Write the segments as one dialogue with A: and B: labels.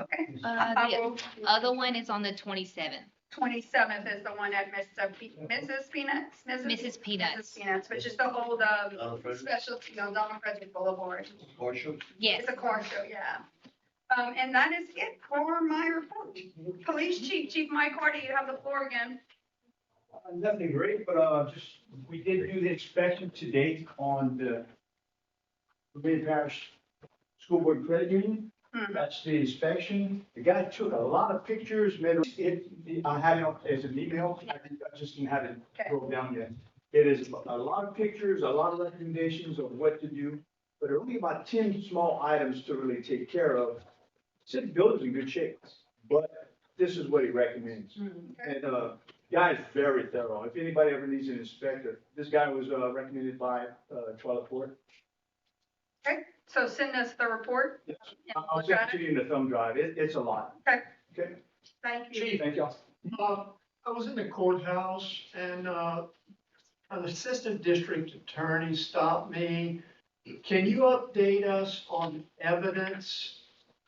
A: Okay,
B: Uh, the other one is on the twenty-seventh,
A: twenty-seventh is the one at Mr. Pe- Mrs. Peanuts, Mrs.
B: Mrs. Peanuts.
A: Mrs. Peanuts, which is the old, um,
C: Donald Frederick,
A: specialty, no, Donald Frederick Boulevard.
C: Marshall,
B: Yes,
A: It's a car show, yeah. Um, and that is it for my report. Police Chief, Chief Mike Carter, you have the floor again.
D: Uh, Nothing great, but uh, just, we did do the inspection today on the Vermillion Parish School Board Credit Union.
A: Hmm.
D: That's the inspection. The guy took a lot of pictures, made a- it, I had it as an email, I think I just didn't have it
A: Okay.
D: broke down yet. It is a lot of pictures, a lot of recommendations of what to do, but there are only about ten small items to really take care of. City building's in good shape, but this is what he recommends.
A: Hmm,
D: And, uh, guy is very thorough. If anybody ever needs an inspector, this guy was uh, recommended by uh, Twyla Ford.
A: So send us the report.
D: Yes.
A: Yeah,
D: I'll I'll
A: we'll try
D: send it to you in the thumb drive. It, it's a lot.
A: Okay.
D: Okay,
A: Thank you.
D: thank y'all.
E: Uh, I was in the courthouse and uh, an assistant district attorney stopped me. Can you update us on evidence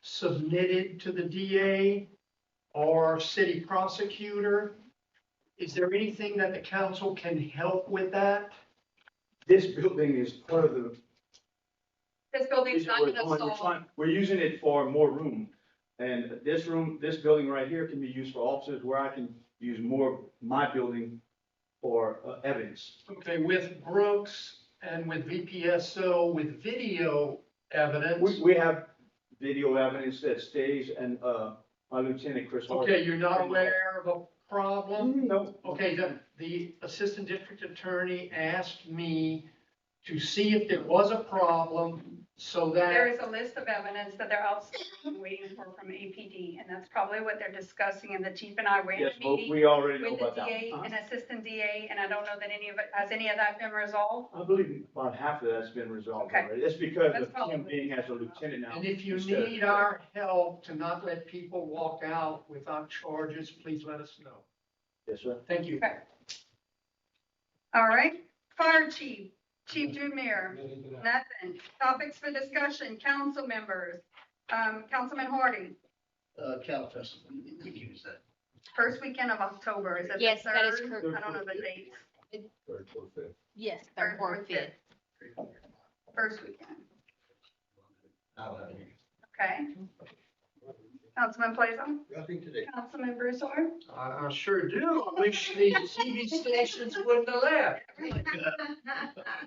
E: submitted to the DA or city prosecutor? Is there anything that the council can help with that?
D: This building is part of the.
A: This building's not
D: we're-
A: gonna
D: we're
A: solve.
D: trying- We're using it for more room. And this room, this building right here can be used for offices where I can use more, my building for uh, evidence.
E: Okay, with Brooks and with VPSO, with video
D: We,
E: evidence?
D: we have video evidence that stays and uh, my lieutenant Chris. Harper-
E: Okay, you're not aware of a problem?
D: No.
E: Okay, the, the assistant district attorney asked me to see if there was a problem so
A: There
E: that,
A: is a list of evidence that they're outstanding, waiting for from APD, and that's probably what they're discussing, and the chief and I were in
D: Yes,
A: a
D: well,
A: meeting
D: we already know
A: with the
D: about that.
A: DA
E: Uh-huh.
A: and assistant DA, and I don't know that any of it, has any of that been resolved?
D: I believe about half of that's been resolved
A: Okay.
D: already. That's because
A: That's
D: of him
A: probably-
D: being as a lieutenant now.
E: and if you
D: Instead of-
E: need our help to not let people walk out without charges, please let us know.
D: Yes, sir.
E: Thank you.
A: All right, fire chief, Chief
F: Mm-hmm.
A: Jumeir, nothing. Topics for discussion, council members. Um, Councilman Harding,
F: uh, Cal Festival, you can use that.
A: first weekend of October, is it the
B: yes, that is
A: third?
B: correct.
A: I don't know the dates,
F: Third, fourth, fifth.
B: Yes, third, fourth, fifth.
A: first weekend,
F: I'll have you.
A: okay? Councilman Plazo,
F: Nothing today.
A: Councilman Broussard.
E: I, I sure do. I wish the TV stations wouldn't have left.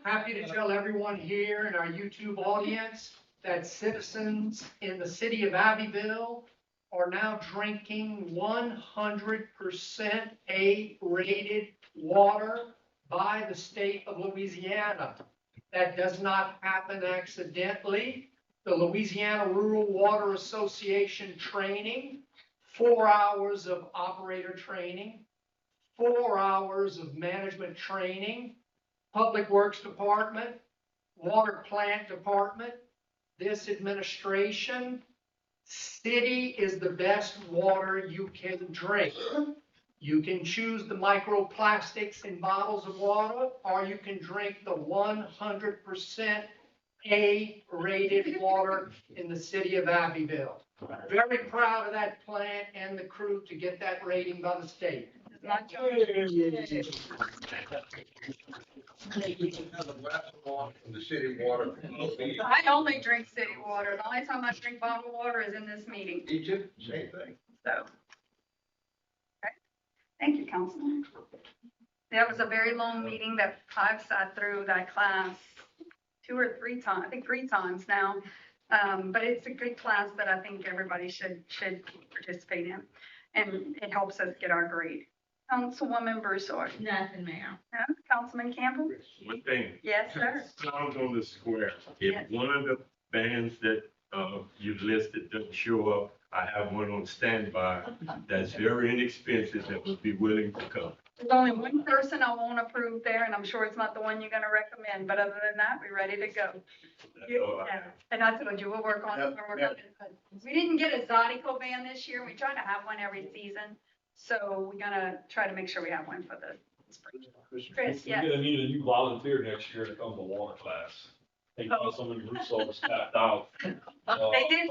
E: Happy to tell everyone here in our YouTube audience that citizens in the city of Abbeville are now drinking one hundred percent A-rated water by the state of Louisiana. That does not happen accidentally. The Louisiana Rural Water Association training, four hours of operator training, four hours of management training, Public Works Department, Water Plant Department, this administration, city is the best water you can drink. You can choose the microplastics in bottles of water, or you can drink the one hundred percent A-rated water in the city of Abbeville. Very proud of that plant and the crew to get that rating by the state.
A: It's not your-
F: Another glass of water from the city water.
A: I only drink city water. The only time I drink bottled water is in this meeting,
F: Egypt, same thing.
A: so. Okay. Thank you, Councilman. That was a very long meeting that I've sat through that class two or three times, I think three times now. Um, but it's a good class that I think everybody should, should participate in. And it helps us get our grade. Councilwoman Broussard,
G: Nothing, ma'am.
A: no? Councilman Campbell?
H: One thing,
A: Yes, sir.
H: sounds on the square.
A: Yes.
H: If one of the bands that, uh, you listed doesn't show up, I have one on standby that's very inexpensive that would be willing to come.
A: There's only one person I won't approve there, and I'm sure it's not the one you're gonna recommend, but other than that, we're ready to go.
H: That's all I have.
A: And I told you, we'll work on it. when we're done. We didn't get a Zodico van this year. We try to have one every season. So we're gonna try to make sure we have one for the spring. Chris, yes.
I: We're gonna need a new volunteer next year to come to water class. They
A: Oh.
I: found someone who's so tapped out. Uh,
A: They did